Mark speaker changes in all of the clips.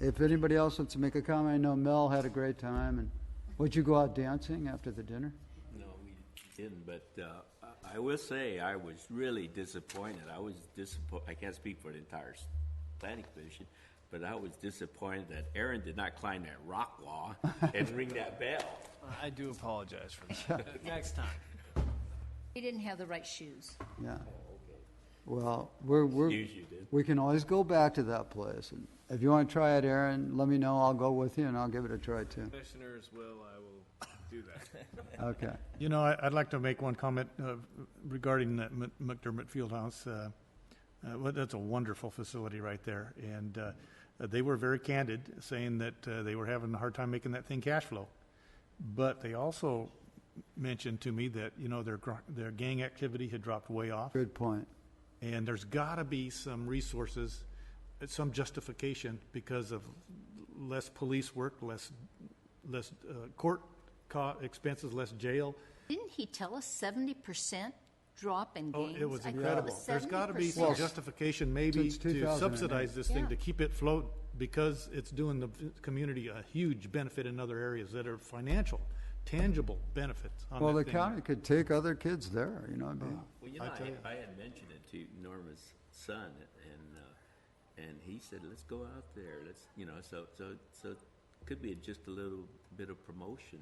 Speaker 1: If anybody else wants to make a comment, I know Mel had a great time, and would you go out dancing after the dinner?
Speaker 2: No, we didn't, but uh, I- I will say, I was really disappointed. I was disappointed, I can't speak for the entire s- planning commission, but I was disappointed that Aaron did not climb that rock wall and ring that bell.
Speaker 3: I do apologize for that. Next time.
Speaker 4: He didn't have the right shoes.
Speaker 1: Yeah. Well, we're, we're.
Speaker 2: Excuse you, dude.
Speaker 1: We can always go back to that place. And If you want to try it, Aaron, let me know. I'll go with you and I'll give it a try too.
Speaker 3: Commissioners will, I will do that.
Speaker 1: Okay.
Speaker 5: You know, I- I'd like to make one comment uh, regarding that Mc- McDermott Fieldhouse. Uh, uh, well, That's a wonderful facility right there, and uh, they were very candid, saying that uh, they were having a hard time making that thing cash flow. But they also mentioned to me that, you know, their gr- their gang activity had dropped way off.
Speaker 1: Good point.
Speaker 5: And there's got to be some resources, uh, some justification because of less police work, less, less uh, court co- expenses, less jail.
Speaker 4: Didn't he tell us seventy percent drop in
Speaker 5: Oh,
Speaker 4: games?
Speaker 5: it was
Speaker 4: I thought
Speaker 5: incredible.
Speaker 4: was
Speaker 5: There's got to be
Speaker 4: 70%.
Speaker 5: some justification maybe
Speaker 1: Since
Speaker 5: to
Speaker 1: 2008.
Speaker 5: subsidize this thing,
Speaker 4: Yeah.
Speaker 5: to keep it float, because it's doing the v- community a huge benefit in other areas that are financial, tangible benefits on
Speaker 1: Well, the
Speaker 5: that thing. Oh.
Speaker 1: county could take other kids there, you know what I mean?
Speaker 2: Well, you know,
Speaker 5: I tell you.
Speaker 2: I, I had mentioned it to Norma's son, and, uh, and he said, let's go out there, let's, you know, so, so, so it could be just a little bit of promotion,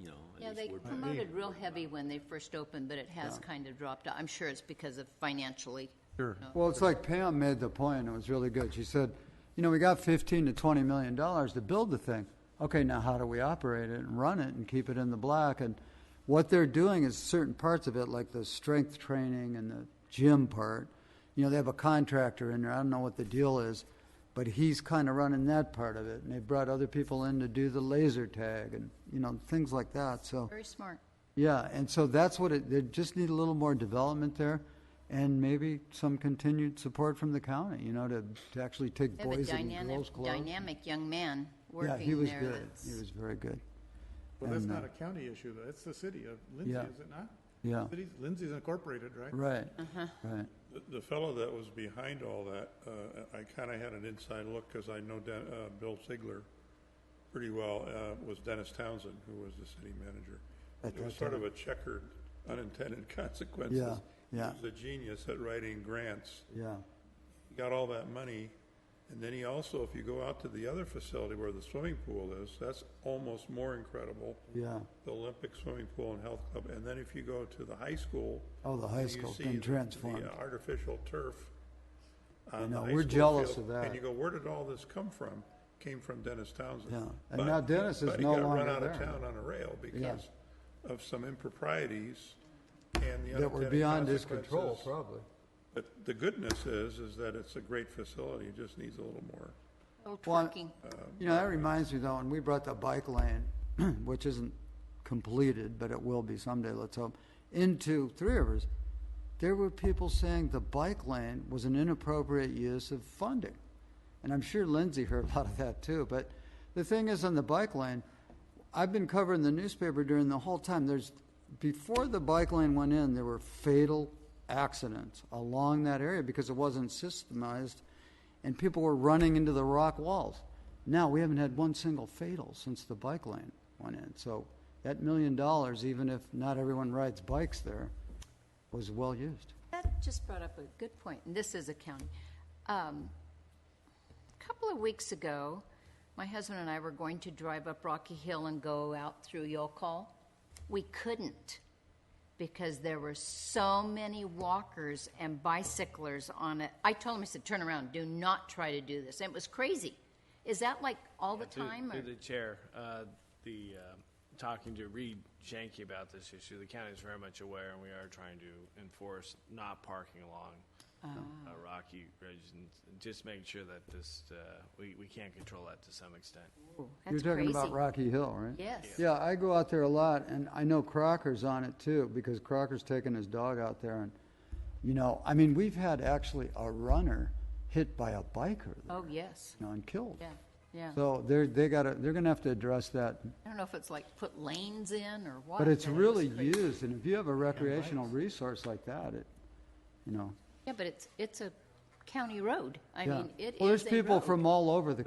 Speaker 2: you know. at
Speaker 4: Yeah,
Speaker 2: least
Speaker 4: they
Speaker 2: word of mouth.
Speaker 4: promoted real heavy when they first opened, but it has kind of dropped. I'm sure it's because of financially.
Speaker 5: Sure.
Speaker 1: Well, it's like Pam made the point, and it was really good. She said, you know, we got fifteen to twenty million dollars to build the thing. Okay, now how do we operate it and run it and keep it in the black? And what they're doing is certain parts of it, like the strength training and the gym part. You know, they have a contractor in there. I don't know what the deal is, but he's kind of running that part of it. And they brought other people in to do the laser tag and you know things like that. So
Speaker 4: Very smart.
Speaker 1: yeah, and so that's what it, they just need a little more development there and maybe some continued support from the county, you know, to, to actually take
Speaker 4: They have a
Speaker 1: boys and
Speaker 4: dynamic,
Speaker 1: girls clubs.
Speaker 4: dynamic young man
Speaker 1: Yeah, he
Speaker 4: working
Speaker 1: was
Speaker 4: there.
Speaker 1: good.
Speaker 4: that's-
Speaker 1: He was very good.
Speaker 5: Well, that's
Speaker 1: And, uh,
Speaker 5: not a county issue, though. It's the city of Lindsay,
Speaker 1: Yeah.
Speaker 5: is it not?
Speaker 1: Yeah,
Speaker 5: Cities- Lindsay's incorporated, right?
Speaker 1: right,
Speaker 4: Uh-huh.
Speaker 1: right.
Speaker 6: The- The fellow that was behind all that, uh, I kind of had an inside look because I know Den- uh, Bill Ziegler pretty well, uh, was Dennis Townsend, who was the city manager.
Speaker 1: At
Speaker 6: It was
Speaker 1: that
Speaker 6: sort of a checkered unintended consequences.
Speaker 1: Yeah, yeah.
Speaker 6: He was a genius at writing grants.
Speaker 1: Yeah,
Speaker 6: He got all that money. And then he also, if you go out to the other facility where the swimming pool is, that's almost more incredible.
Speaker 1: yeah.
Speaker 6: The Olympic swimming pool and health club. And then if you go to the high school,
Speaker 1: Oh, the high
Speaker 6: you
Speaker 1: school's
Speaker 6: see
Speaker 1: been
Speaker 6: the-
Speaker 1: transformed.
Speaker 6: The uh, artificial turf. on
Speaker 1: I
Speaker 6: the
Speaker 1: know,
Speaker 6: high
Speaker 1: we're
Speaker 6: school
Speaker 1: jealous
Speaker 6: field,
Speaker 1: of that.
Speaker 6: And you go, where did all this come from? Came from Dennis Townsend.
Speaker 1: Yeah, and
Speaker 6: But-
Speaker 1: now Dennis is no
Speaker 6: But he
Speaker 1: longer
Speaker 6: got run out of
Speaker 1: there.
Speaker 6: town on a rail because of some improprieties and the
Speaker 1: That were
Speaker 6: unintended
Speaker 1: beyond his control,
Speaker 6: consequences.
Speaker 1: probably.
Speaker 6: But the goodness is, is that it's a great facility, it just needs a little more.
Speaker 4: Little
Speaker 1: Well,
Speaker 4: twerking.
Speaker 1: You know, that reminds me though, when we brought the bike lane, which isn't completed, but it will be someday, let's hope, into Three Rivers, there were people saying the bike lane was an inappropriate use of funding. And I'm sure Lindsay heard a lot of that too. But the thing is, on the bike lane, I've been covering the newspaper during the whole time. There's before the bike lane went in, there were fatal accidents along that area because it wasn't systemized, and people were running into the rock walls. Now we haven't had one single fatal since the bike lane went in. So that million dollars, even if not everyone rides bikes there, was well used.
Speaker 4: That just brought up a good point, and this is a county. Um, a couple of weeks ago, my husband and I were going to drive up Rocky Hill and go out through Yokol. We couldn't because there were so many walkers and bicyclers on it. I told him, I said, turn around, do not try to do this. And it was crazy. Is that like all the
Speaker 3: Through-
Speaker 4: time?
Speaker 3: Through
Speaker 4: or-
Speaker 3: the chair, uh, the, uh, talking to Reed Shanky about this issue, the county's very much aware, and we are trying to enforce not parking along uh, Rocky Ridge, and just making sure that this, uh, we, we can control that to some extent.
Speaker 4: Ooh,
Speaker 1: You're
Speaker 4: That's
Speaker 1: talking
Speaker 4: crazy.
Speaker 1: about Rocky Hill, right?
Speaker 4: Yes.
Speaker 1: Yeah, I go out there a lot, and I know Crocker's on it too because Crocker's taking his dog out there, and you know, I mean, we've had actually a runner hit by a biker, you
Speaker 4: Oh, yes.
Speaker 1: know, and killed.
Speaker 4: Yeah, yeah.
Speaker 1: So they're they got to they're gonna have to address that,
Speaker 4: I don't know if it's like put lanes in or what.
Speaker 1: but it's
Speaker 4: it was
Speaker 1: really
Speaker 4: crazy.
Speaker 1: used, and if you have a recreational resource like that, it, you know,
Speaker 4: Yeah, but it's, it's a county road. I
Speaker 1: yeah.
Speaker 4: mean, it is
Speaker 1: well, there's
Speaker 4: a
Speaker 1: people
Speaker 4: road.
Speaker 1: from all over the